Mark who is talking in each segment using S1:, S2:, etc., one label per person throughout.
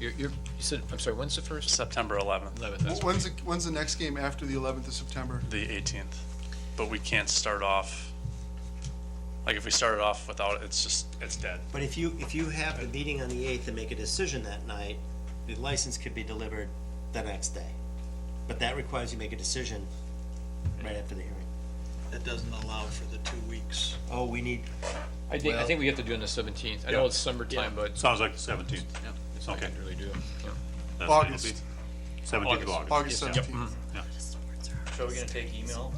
S1: You're, you're, you said, I'm sorry, when's the first?
S2: September uh, 11th,
S1: 11th. that's-
S3: When's, the when's the next game after the 11th of September?
S2: the 18th. But we can't start off, like if we started off without, it, it's just, it's dead.
S4: But if you, if you have the meeting on the eighth and make a decision that night, the license could be delivered the next day. But that requires you make a decision right after the hearing.
S5: That doesn't allow for the two weeks.
S4: Oh, we need,
S1: I think, I think we have to do it on the 17th. I know
S6: Yeah.
S1: it's summertime, but
S6: Sounds like the seventeenth.
S1: it's not
S6: Okay.
S1: gonna really do it.
S3: August.
S6: Seventeenth of August.
S3: August
S1: Yep.
S3: 17th.
S7: So are we gonna take email?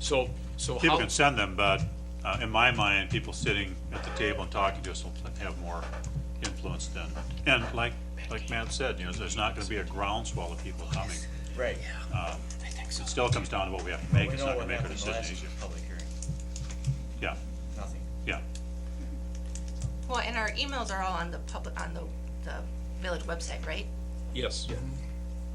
S1: So, so
S6: People
S1: how,
S6: can send them, but uh, in my mind, people sitting at the table and talking to us will have more influence then. And like, like Matt said, you know, there's not gonna be a groundswell of people coming. Um,
S7: Right.
S6: It still comes down to what we have to make,
S7: We
S6: it's
S7: know
S6: not gonna
S7: what
S6: make a
S7: happened
S6: decision
S7: last
S6: easier.
S7: public hearing,
S6: Yeah,
S7: nothing.
S6: yeah.
S8: Well, and our emails are all on the public, on the, the village website, right?
S1: yes,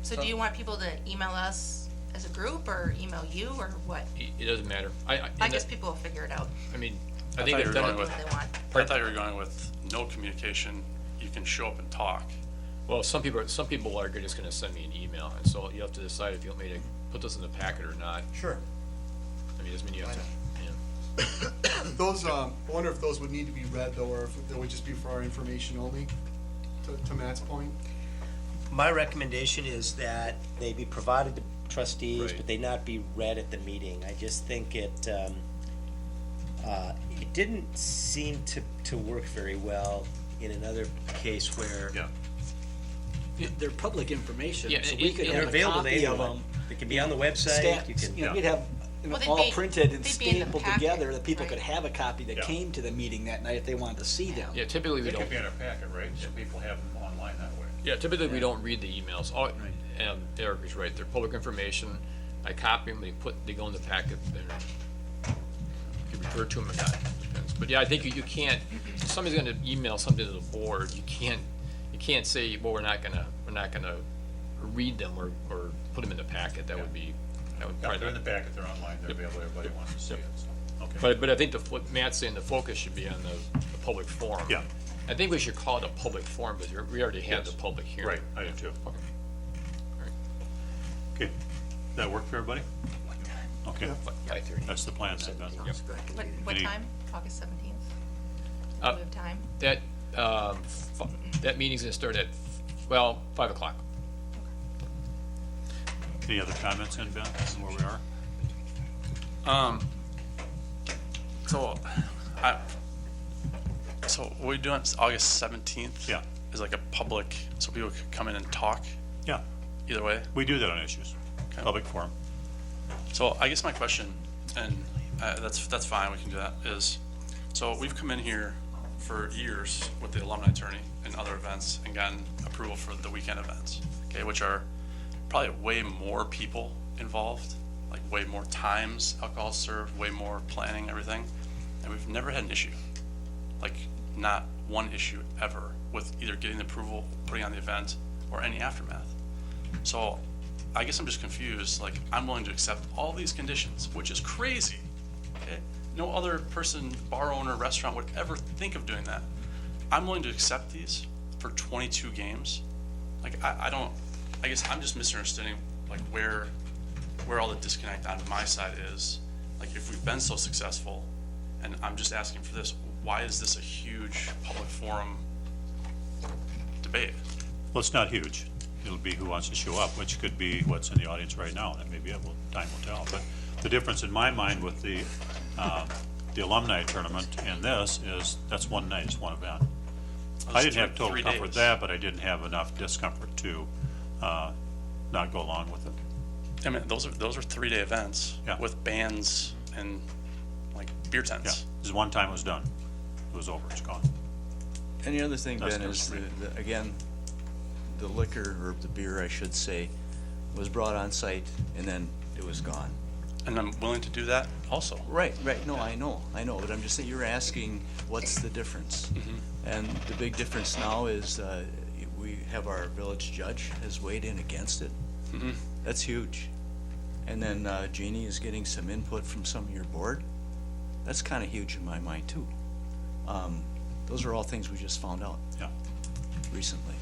S8: So do you want people to email us as a group or email you or what?
S1: it it doesn't matter. I, I,
S8: I
S1: and
S8: guess
S1: that-
S8: people will figure it out,
S1: I mean, I
S2: I
S1: think
S2: thought
S1: they've
S2: you were
S1: done
S2: going
S1: it,
S8: what
S2: with-
S8: they want.
S2: I thought you were going with no communication, you can show up and talk.
S1: well, some people, are- some people are just gonna send me an email, and so you have to decide if you want me to put this in the packet or not.
S7: Sure.
S1: I mean, doesn't mean you have to, yeah.
S3: Those, um, I wonder if those would need to be read though, or if they would just be for our information only, to, to Matt's point.
S4: my recommendation is that they be provided to trustees,
S1: Right.
S4: but they not be read at the meeting. I just think it, um, uh, it didn't seem to, to work very well in another case where
S6: Yeah.
S5: They're public information,
S1: Yeah,
S5: so
S1: it-
S5: we could
S1: it-
S4: they're
S5: have a
S4: available to
S5: copy of
S4: anyone.
S5: them.
S4: It can be on the website,
S5: Stamp,
S4: you can.
S5: you know,
S6: yeah.
S5: we'd have you know,
S8: Well, they'd
S5: all
S8: be-
S5: printed and
S8: they'd be in the
S5: stapled
S8: packet,
S5: together, that people
S8: right.
S5: could have a copy that
S6: Yeah.
S5: came to the meeting that night if they wanted to see them.
S1: Yeah, typically we don't.
S6: in our packet, right? So people have them online that way.
S1: Yeah, typically we don't read the emails. All, and Eric is right, they're public information. I copy them, they put, they go in the packet, they're, you refer to them or not, depends. But yeah, I think you, you can't, if somebody's gonna email something to the board, you can't, you can't say, well, we're not gonna, we're not gonna read them or, or put them in the packet, that would be, that would probably. not-
S6: packet, they're online, they're available, everybody wants to see it, so. Okay.
S1: But, but I think the, what Matt's saying, the focus should be on the, the public forum.
S6: Yeah.
S1: I think we should call it a public forum, because we're- we already had the
S6: Yes.
S1: public hearing.
S6: Right, I do too.
S1: Okay.
S6: Okay, that work for everybody? Okay,
S1: Five thirty.
S6: that's the plan then, Ben.
S8: What, what
S6: Any-
S8: time? August seventeenth?
S1: Uh,
S8: Do we have time?
S1: That, um, f- that meeting's gonna start at, well, five o'clock.
S6: Any other comments then, Ben, on where we are?
S2: So, I, so what we doing, it's August 17th?
S6: Yeah.
S2: Is like a public, so people could come in and talk,
S6: Yeah,
S2: either way.
S6: we do that on issues, public forum.
S2: So I guess my question, and uh, that's, that's fine, we can do that, is, so we've come in here for years with the alumni attorney and other events and gotten approval for the weekend events, okay, which are probably way more people involved, like way more times alcohol served, way more planning, everything, and we've never had an issue. Like, not one issue ever with either getting the approval, putting on the event, or any aftermath. So I guess I'm just confused, like, I'm willing to accept all these conditions, which is crazy. Okay? No other person, bar owner, restaurant would ever think of doing that. I'm willing to accept these for twenty-two games. Like, I, I don't, I guess I'm just misunderstanding, like, where, where all the disconnect on my side is. Like, if we've been so successful, and I'm just asking for this, why is this a huge public forum debate?
S6: Well, it's not huge. It'll be who wants to show up, which could be what's in the audience right now, and maybe it will, time will tell. But the difference in my mind with the, um, the alumni tournament and this is, that's one night, it's one event. I didn't have total
S2: Three
S6: comfort with
S2: days.
S6: that, but I didn't have enough discomfort to, uh, not go along with it.
S2: I mean, those are those are three day events
S6: Yeah.
S2: with bands and like beer
S6: Yeah,
S2: tents.
S6: this is one time it was done. It was over, it's gone.
S9: And the other thing,
S6: That's
S9: Ben,
S6: number
S9: is,
S6: three.
S9: the- the- again, the liquor, or the beer, I should say, was brought on site and then it was gone.
S2: And I'm willing to do that also.
S9: Right, right, no, I know, I know, but I'm just saying, you're asking, what's the difference? And the big difference now is, uh, we have our village judge has weighed in against it. That's huge. And then uh, Jeannie is getting some input from some of your board. That's kinda huge in my mind, too. Um, Those are all things we just found out
S6: Yeah.
S9: recently.